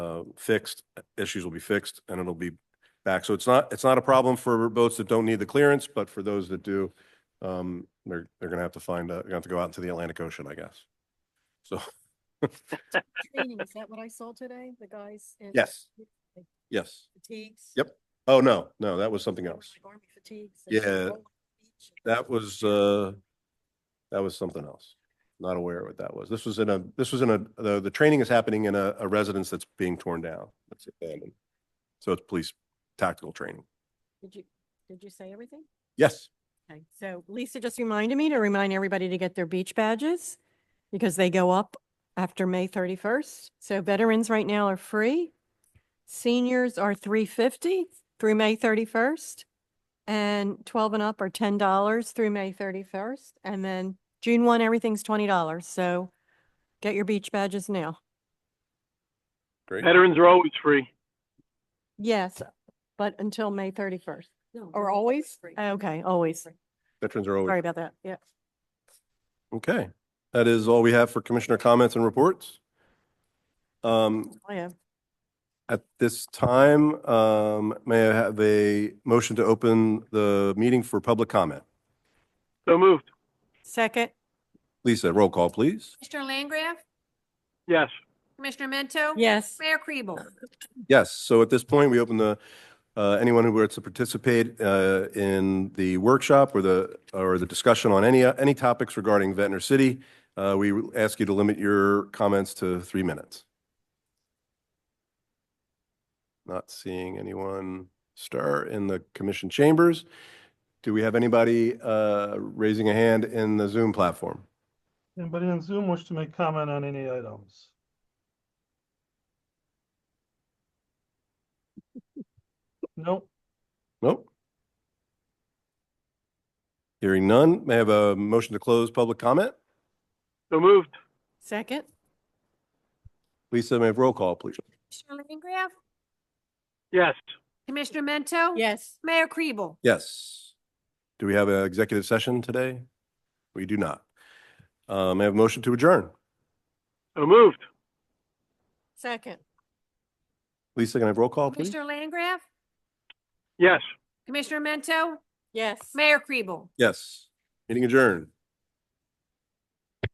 uh, fixed, issues will be fixed and it'll be back. So it's not, it's not a problem for boats that don't need the clearance, but for those that do, um, they're, they're gonna have to find, uh, they're gonna have to go out into the Atlantic Ocean, I guess. So, Training, is that what I saw today? The guys? in yes, yes. Fatigues? Yep, Oh, no, no, that was something They were else. like Army fatigues. and they Yeah, roll on the beach. That was, uh, that was something else. Not aware of what that was. This was in a, this was in a, the, the training is happening in a, a residence that's being torn down. That's abandoned. So it's police tactical training. Did you, did you say everything? Yes. Okay, so Lisa just reminded me to remind everybody to get their beach badges because they go up after May thirty-first. So veterans right now are free. Seniors are three fifty through May thirty-first. And twelve and up are ten dollars through May thirty-first. And then June one, everything's twenty dollars. So get your beach badges now. Great. Veterans are always free. Yes, but until May thirty-first. No, Or they're always? Uh, Ah, free. Okay, always. Veterans are Sorry always, about that. Yeah. okay. That is all we have for commissioner comments and reports. Um, I am. at this time, um, may I have a motion to open the meeting for public comment? So moved. Second, Lisa, roll call, please. Commissioner Langgraf? Yes. Commissioner Mento? yes. Mayor Kribel? Yes, so at this point, we open the, uh, anyone who wants to participate uh, in the workshop or the, or the discussion on any, any topics regarding Ventnor City. Uh, We ask you to limit your comments to three minutes. Not seeing anyone stir in the commission chambers. Do we have anybody uh, raising a hand in the Zoom platform? Anybody on Zoom wish to make comment on any items? Nope, Nope. Hearing none, may I have a motion to close public comment? So moved. Second, Lisa, may I have roll call, please? Commissioner Langgraf? Yes. Commissioner Mento? yes. Mayor Kribel? Yes. Do we have an executive session today? We do not. Uh, May I have a motion to adjourn? So moved. Second, Lisa, can I have roll call, please? Commissioner Langgraf? Yes. Commissioner Mento? yes. Mayor Kribel? Yes. Meeting adjourned.